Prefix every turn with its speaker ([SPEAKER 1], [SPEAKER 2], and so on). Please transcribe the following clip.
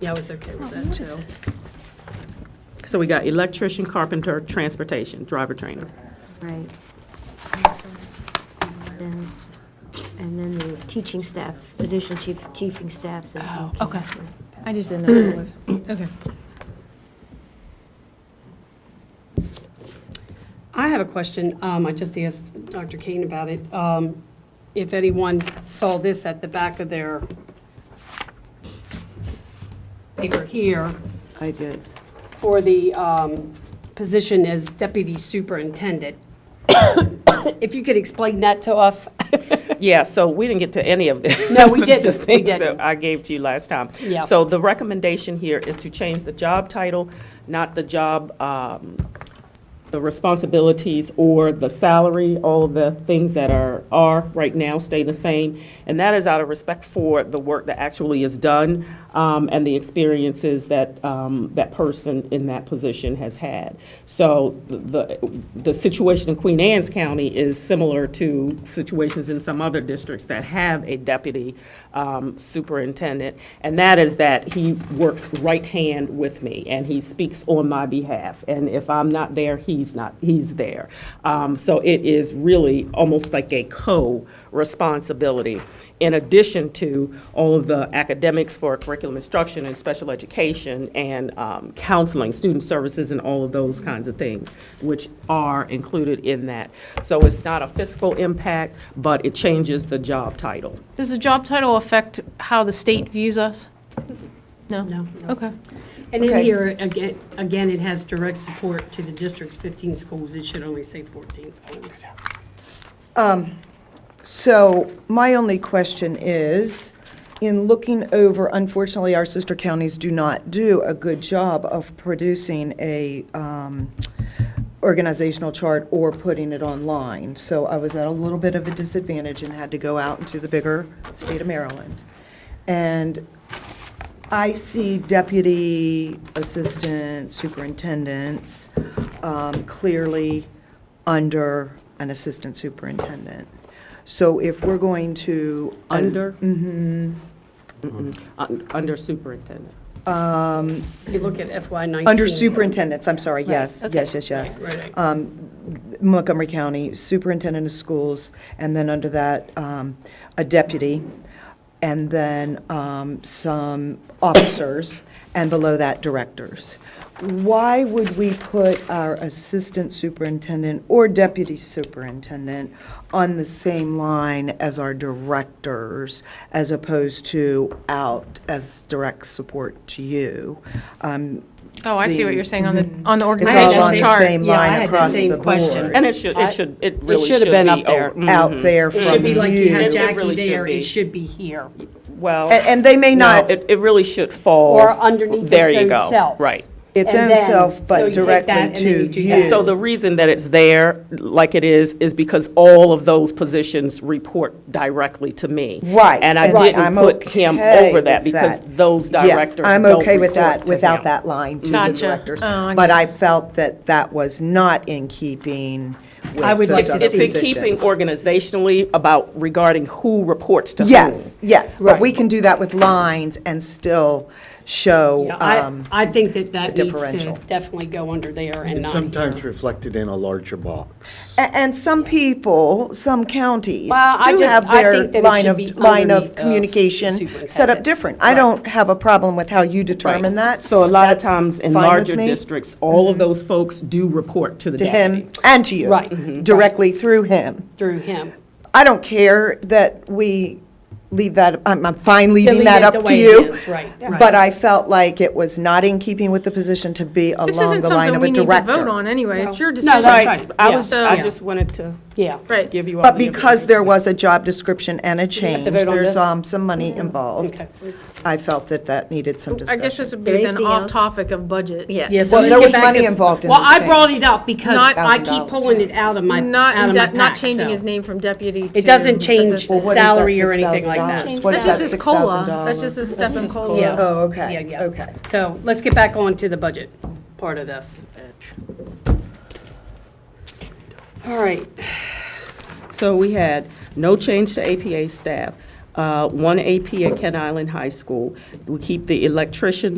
[SPEAKER 1] Yeah, I was okay
[SPEAKER 2] Oh,
[SPEAKER 1] with that too.
[SPEAKER 3] So we got electrician, carpenter, transportation, driver trainer.
[SPEAKER 4] Right. And then- And then the teaching staff, additional chief, teaching staff. that we
[SPEAKER 5] Oh,
[SPEAKER 4] can-
[SPEAKER 5] okay. I just didn't know what it was. Okay.
[SPEAKER 1] I have a question. Um, I just asked Dr. Kane about it. Um, If anyone saw this at the back of their paper here,
[SPEAKER 2] I did.
[SPEAKER 1] for the um, position as deputy superintendent, if you could explain that to us.
[SPEAKER 3] Yeah, so we didn't get to any of this.
[SPEAKER 1] No, we didn't.
[SPEAKER 3] The
[SPEAKER 1] We
[SPEAKER 3] things
[SPEAKER 1] didn't.
[SPEAKER 3] that I gave to you last time.
[SPEAKER 1] Yeah.
[SPEAKER 3] So the recommendation here is to change the job title, not the job, um, the responsibilities or the salary, all of the things that are, are right now stay the same. And that is out of respect for the work that actually is done um, and the experiences that um, that person in that position has had. So the, the situation in Queen Anne's County is similar to situations in some other districts that have a deputy um, superintendent. And that is that he works right hand with me and he speaks on my behalf. And if I'm not there, he's not, he's there. Um, So it is really almost like a co-responsibility in addition to all of the academics for curriculum instruction and special education and um, counseling, student services, and all of those kinds of things, which are included in that. So it's not a fiscal impact, but it changes the job title.
[SPEAKER 5] Does the job title affect how the state views us? No?
[SPEAKER 1] No.
[SPEAKER 5] Okay.
[SPEAKER 1] And in
[SPEAKER 2] Okay.
[SPEAKER 1] here, again, again, it has direct support to the district's 15 schools. It should only say 14 schools.
[SPEAKER 2] So my only question is, in looking over, unfortunately, our sister counties do not do a good job of producing a um, organizational chart or putting it online. So I was at a little bit of a disadvantage and had to go out into the bigger state of Maryland. And I see deputy assistant superintendents um, clearly under an assistant superintendent. So if we're going to.
[SPEAKER 3] Under? Un- Under superintendent.
[SPEAKER 1] If you look at FY 19.
[SPEAKER 2] Under superintendents, I'm sorry, yes, yes, yes, yes.
[SPEAKER 1] Right, right.
[SPEAKER 2] Um, Montgomery County Superintendent of Schools, and then under that, um, a deputy, and then um, some officers, and below that, directors. Why would we put our assistant superintendent or deputy superintendent on the same line as our directors, as opposed to out as direct support to you? Um,
[SPEAKER 5] Oh, I see what you're saying on the, on the
[SPEAKER 2] Mm-hmm. It's all
[SPEAKER 5] organizational
[SPEAKER 2] on the
[SPEAKER 5] chart.
[SPEAKER 2] same
[SPEAKER 1] Yeah, I
[SPEAKER 2] line
[SPEAKER 1] had the
[SPEAKER 2] across
[SPEAKER 1] same
[SPEAKER 2] the
[SPEAKER 1] question.
[SPEAKER 2] board.
[SPEAKER 3] And it should, it should, it really should
[SPEAKER 6] should've
[SPEAKER 3] be.
[SPEAKER 6] been up there.
[SPEAKER 3] over-
[SPEAKER 2] out
[SPEAKER 3] mhm.
[SPEAKER 2] there
[SPEAKER 1] It
[SPEAKER 2] from
[SPEAKER 1] should be like you
[SPEAKER 2] you.
[SPEAKER 1] had
[SPEAKER 3] It
[SPEAKER 1] Jackie
[SPEAKER 3] really should
[SPEAKER 1] there.
[SPEAKER 3] be.
[SPEAKER 1] It should be here.
[SPEAKER 3] Well.
[SPEAKER 2] And, and they may
[SPEAKER 3] No,
[SPEAKER 2] not,
[SPEAKER 3] it, it really should fall.
[SPEAKER 1] Or underneath
[SPEAKER 3] There
[SPEAKER 1] its
[SPEAKER 3] you
[SPEAKER 1] own
[SPEAKER 3] go.
[SPEAKER 1] self.
[SPEAKER 3] Right.
[SPEAKER 2] its
[SPEAKER 1] and
[SPEAKER 2] own
[SPEAKER 1] then-
[SPEAKER 2] self,
[SPEAKER 1] so
[SPEAKER 2] but
[SPEAKER 1] you take that and
[SPEAKER 2] directly
[SPEAKER 1] then you
[SPEAKER 2] to
[SPEAKER 1] do that.
[SPEAKER 2] you.
[SPEAKER 3] So the reason that it's there, like it is, is because all of those positions report directly to me.
[SPEAKER 2] Right,
[SPEAKER 3] And I
[SPEAKER 2] and
[SPEAKER 3] didn't
[SPEAKER 2] I'm
[SPEAKER 3] put him
[SPEAKER 2] okay
[SPEAKER 3] over that
[SPEAKER 2] with
[SPEAKER 3] because
[SPEAKER 2] that.
[SPEAKER 3] those directors
[SPEAKER 2] Yes, I'm
[SPEAKER 3] don't
[SPEAKER 2] okay with that,
[SPEAKER 3] report to
[SPEAKER 2] without
[SPEAKER 3] him.
[SPEAKER 2] that line to the
[SPEAKER 5] Gotcha.
[SPEAKER 2] directors.
[SPEAKER 5] Oh, I
[SPEAKER 2] But I felt that that was not in keeping with
[SPEAKER 1] I would like
[SPEAKER 2] those
[SPEAKER 1] to
[SPEAKER 2] other
[SPEAKER 3] It's in keeping
[SPEAKER 2] positions.
[SPEAKER 3] organizationally about regarding who reports to whom.
[SPEAKER 2] Yes, yes, but we can do that with lines and still show,
[SPEAKER 1] Yeah, I,
[SPEAKER 2] um,
[SPEAKER 1] I think that that
[SPEAKER 2] the
[SPEAKER 1] needs to
[SPEAKER 2] differential.
[SPEAKER 1] definitely go under there and
[SPEAKER 6] It's
[SPEAKER 1] not
[SPEAKER 6] sometimes
[SPEAKER 1] here.
[SPEAKER 6] reflected in a larger box.
[SPEAKER 2] a- and some people, some counties
[SPEAKER 1] Well, I
[SPEAKER 2] do
[SPEAKER 1] just-
[SPEAKER 2] have
[SPEAKER 1] I
[SPEAKER 2] their
[SPEAKER 1] think that it
[SPEAKER 2] line
[SPEAKER 1] should
[SPEAKER 2] of,
[SPEAKER 1] be
[SPEAKER 2] line
[SPEAKER 1] underneath
[SPEAKER 2] of
[SPEAKER 1] of
[SPEAKER 2] communication set up
[SPEAKER 1] superintendent.
[SPEAKER 2] different. I
[SPEAKER 1] Right.
[SPEAKER 2] don't have a problem with how you determine that.
[SPEAKER 3] So a lot of
[SPEAKER 2] That's
[SPEAKER 3] times in
[SPEAKER 2] fine with
[SPEAKER 3] larger
[SPEAKER 2] me.
[SPEAKER 3] districts, all of those folks do report to the
[SPEAKER 2] to
[SPEAKER 3] deputy.
[SPEAKER 2] him and to you.
[SPEAKER 1] Right. Mhm.
[SPEAKER 2] Directly through him.
[SPEAKER 1] through him.
[SPEAKER 2] I don't care that we leave that, I'm, I'm fine leaving
[SPEAKER 1] Delete
[SPEAKER 2] that
[SPEAKER 1] it the
[SPEAKER 2] up to
[SPEAKER 1] way it
[SPEAKER 2] you.
[SPEAKER 1] is, right, right.
[SPEAKER 2] But I felt like it was not in keeping with the position to be
[SPEAKER 5] This
[SPEAKER 2] along
[SPEAKER 5] isn't
[SPEAKER 2] the line
[SPEAKER 5] something
[SPEAKER 2] of
[SPEAKER 5] we
[SPEAKER 2] a
[SPEAKER 5] need to
[SPEAKER 2] director.
[SPEAKER 5] vote on anyway. It's your
[SPEAKER 1] No,
[SPEAKER 5] decision.
[SPEAKER 1] that's right.
[SPEAKER 3] I
[SPEAKER 1] Yeah.
[SPEAKER 3] was, I
[SPEAKER 1] Yeah.
[SPEAKER 3] just wanted to
[SPEAKER 1] Yeah.
[SPEAKER 5] Right.
[SPEAKER 3] give you all the
[SPEAKER 2] But because there was a job description and a change,
[SPEAKER 1] vote on
[SPEAKER 2] there's
[SPEAKER 1] this? Mm-hmm.
[SPEAKER 2] um, some money involved.
[SPEAKER 1] Okay.
[SPEAKER 2] I felt that that needed some
[SPEAKER 5] I
[SPEAKER 2] discussion.
[SPEAKER 5] guess this would be then
[SPEAKER 7] Anything
[SPEAKER 5] off
[SPEAKER 7] else?
[SPEAKER 5] topic of budget.
[SPEAKER 7] Yeah.
[SPEAKER 1] Yeah, so
[SPEAKER 2] Well,
[SPEAKER 1] let's
[SPEAKER 2] there
[SPEAKER 1] get
[SPEAKER 2] was
[SPEAKER 1] back
[SPEAKER 2] money
[SPEAKER 1] to-
[SPEAKER 2] involved in
[SPEAKER 1] Well,
[SPEAKER 2] this
[SPEAKER 1] I
[SPEAKER 2] change.
[SPEAKER 1] brought it up because
[SPEAKER 5] Not-
[SPEAKER 1] I keep pulling it out of my,
[SPEAKER 5] Not,
[SPEAKER 1] out of my
[SPEAKER 5] inde- not
[SPEAKER 1] pack,
[SPEAKER 5] changing
[SPEAKER 1] so.
[SPEAKER 5] his name from deputy to.
[SPEAKER 1] It doesn't change
[SPEAKER 5] assistant.
[SPEAKER 1] the
[SPEAKER 2] what is that,
[SPEAKER 1] salary or anything like
[SPEAKER 2] $6,000?
[SPEAKER 1] that.
[SPEAKER 2] What
[SPEAKER 5] That's
[SPEAKER 2] is
[SPEAKER 5] just
[SPEAKER 2] that,
[SPEAKER 5] his COLA.
[SPEAKER 2] $6,000?
[SPEAKER 5] That's just a step in COLA.
[SPEAKER 1] Yeah.
[SPEAKER 2] Oh,
[SPEAKER 1] Yeah,
[SPEAKER 2] okay,
[SPEAKER 1] yeah.
[SPEAKER 2] okay.
[SPEAKER 1] So let's get back on to the budget part of this. All right,
[SPEAKER 3] So we had no change to APA staff, uh, one AP at Kent Island High School. We keep the electrician